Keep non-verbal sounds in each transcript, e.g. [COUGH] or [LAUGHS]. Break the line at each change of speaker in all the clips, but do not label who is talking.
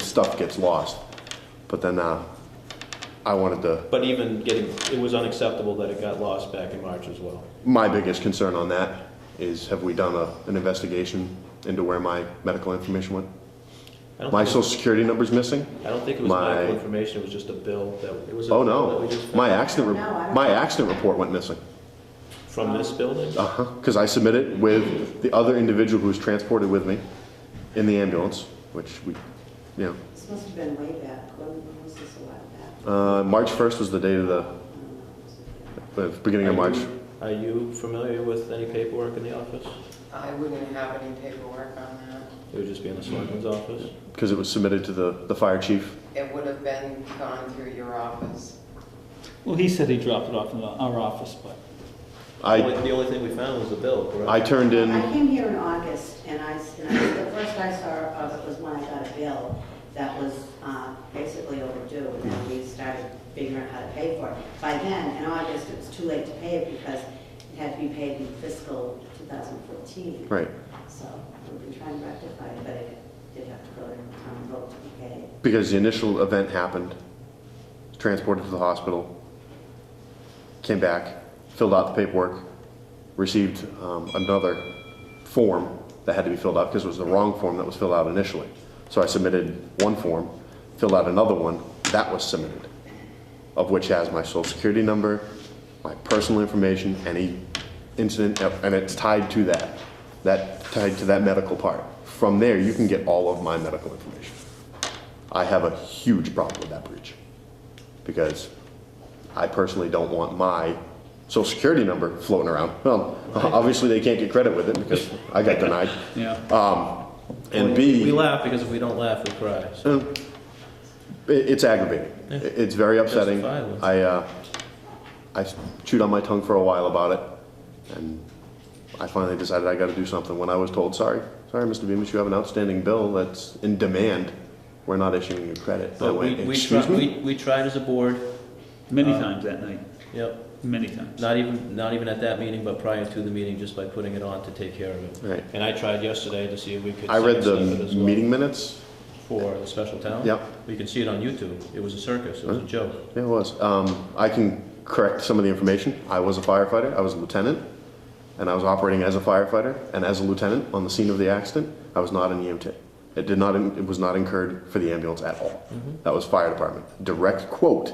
stuff gets lost. But then, uh, I wanted to,
But even getting, it was unacceptable that it got lost back in March as well.
my biggest concern on that is have we done a, an investigation into where my medical information went?
I don't
My
think-
social security number's missing?
I don't think it was
my-
medical information, it was just a bill that, it was a
Oh,
bill that
no.
we just found
My accident,
No, I
re-
don't-
my accident report went missing.
From this building?
Uh-huh, because I submitted with the other individual who was transported with me in the ambulance, which we, you
This must have been way back, when when was this a while back?
know, uh, March 1st was the date of the,
I don't know. Was it-
the beginning of
Are
March.
you- Are you familiar with any paperwork in the office?
I wouldn't have any paperwork on that.
It would just be in the selectman's office?
Because it was submitted to the, the fire chief.
It would have been gone through your office.
Well, he said he dropped it off in the- our office, but
The
I,
only- the only thing we found was the bill,
I
correct?
turned
I
in,
came here in August, and I, s- and I- the first I saw of it was when I got a bill that was uh, basically overdue, and then we started figuring out how to pay for it. By then, in August, it was too late to pay it because it had to be paid in fiscal 2014.
right,
So we've been trying to rectify it, but it did have to go to town vote to be paid.
because the initial event happened, transported to the hospital, came back, filled out the paperwork, received um, another form that had to be filled out because it was the wrong form that was filled out initially. So I submitted one form, filled out another one, that was submitted, of which has my social security number, my personal information, any incident, and it's tied to that, that, tied to that medical part. From there, you can get all of my medical information. I have a huge problem with that breach because I personally don't want my social security number floating around. Well, [LAUGHS] obviously they can't get credit with it because I got denied.
yeah.
Um, and
We
B,
laugh because if we don't laugh, we cry. So
uh, it- it's aggravating.
Yeah.
It- It's very upsetting.
Justifiable.
I, uh, I chewed on my tongue for a while about it and I finally decided I gotta do something when I was told, sorry, sorry, Mr. Beamish, you have an outstanding bill that's in demand. We're not issuing you credit. And I
But we,
went,
we
excuse
tried,
me?
we, we tried as a board,
Many
Uh,
times that night,
yep,
many times.
not even, not even at that meeting, but prior to the meeting, just by putting it on to take care of it.
Right.
And I tried yesterday to see if we could.
I read the
sidestep it as well
meeting minutes.
For the special town.
Yep.
You can see it on YouTube. It was a circus, it was a joke.
Yeah, it was. Um, I can correct some of the information. I was a firefighter, I was a lieutenant, and I was operating as a firefighter and as a lieutenant on the scene of the accident. I was not an EMT. It did not, it was not incurred for the ambulance at all.
Mm-hmm.
That was fire department. Direct quote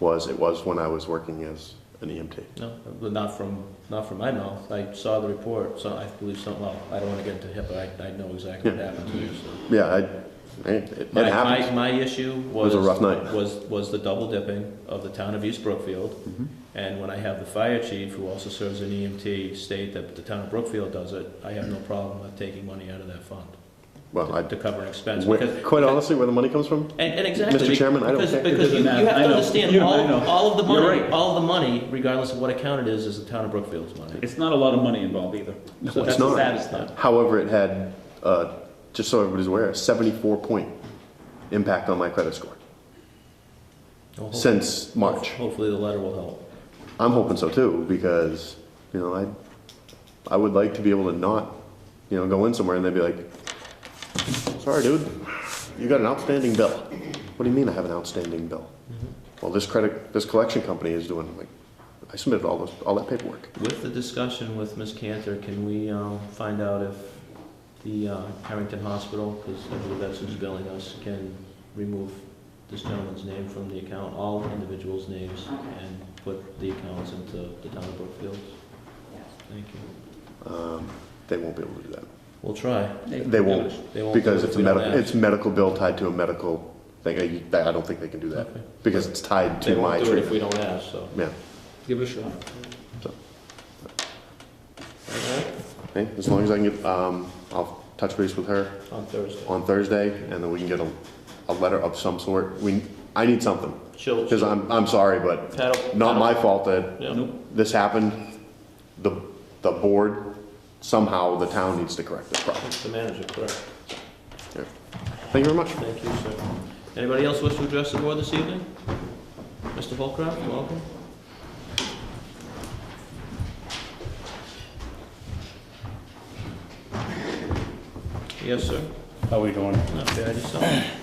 was, it was when I was working as an E EMT.
No, but not from, not from my mouth. I saw the report, so I believe something, well, I don't want to get into HIPAA, I, I know exactly what happened to you, so.
Yeah, I, it, it
My,
happens.
my, my issue
was
was.
a rough night.
Was, was the double dipping of the town of East Brookfield.
Mm-hmm.
And when I have the fire chief, who also serves an EMT, state that the town of Brookfield does it, I have no problem with taking money out of that fund
Well,
to
I,
cover an expense.
where-
because-
quite honestly, where the money comes from?
And, and exactly.
Mr. Chairman, I don't
because-
care. It
Because you,
doesn't
you have
matter. I
to
know.
understand,
You- I
all,
know.
all of the
You're
money,
right.
all of the money, regardless of what account it is, is the town of Brookfield's money.
It's not a lot of money involved either.
No,
So
it's
that's the
not.
saddest thing.
However, it had, uh, just so everybody's aware, a 74 point impact on my credit score
Well, hope-
since March.
Hopefully the letter will help.
I'm hoping so too because you know I I would like to be able to not you know go in somewhere and they'd be like, sorry, dude, you got an outstanding bill. What do you mean I have an outstanding bill?
Mm-hmm.
Well, this credit this collection company is doing I'm like I submitted all those all that paperwork.
With the discussion with Ms. Cantor, can we um, find out if the uh, Harrington Hospital, because I believe that's who's billing us, can remove this gentleman's name from the account, all individuals' names,
Okay.
and put the accounts into the town of Brookfield? Thank you.
Um, they won't be able to do that
We'll try.
They won't,
They won't do
because
it if
it's a
we don't
medical
ask.
it's medical bill tied to a medical thing. I, I don't think they can do that
Okay.
because it's tied
They
to my
won't do it if
treatment.
we don't ask, so.
Yeah.
Give it a shot.
All right,
Okay, as long as I can get, um, I'll touch base with her
on Thursday.
on Thursday, and then we can get a, a letter of some sort. We, I need something,
She'll,
because I'm, I'm sorry, but
paddle.
not my fault that
Yeah.
Nope.
this happened. The, the board, somehow the town needs to correct this problem.
It's the manager, correct.
Thank you very much.
Thank you, sir. Anybody else wish to address the board this evening? Mr. Holcraft, welcome. Yes, sir.
How we doing?
Not bad, yourself?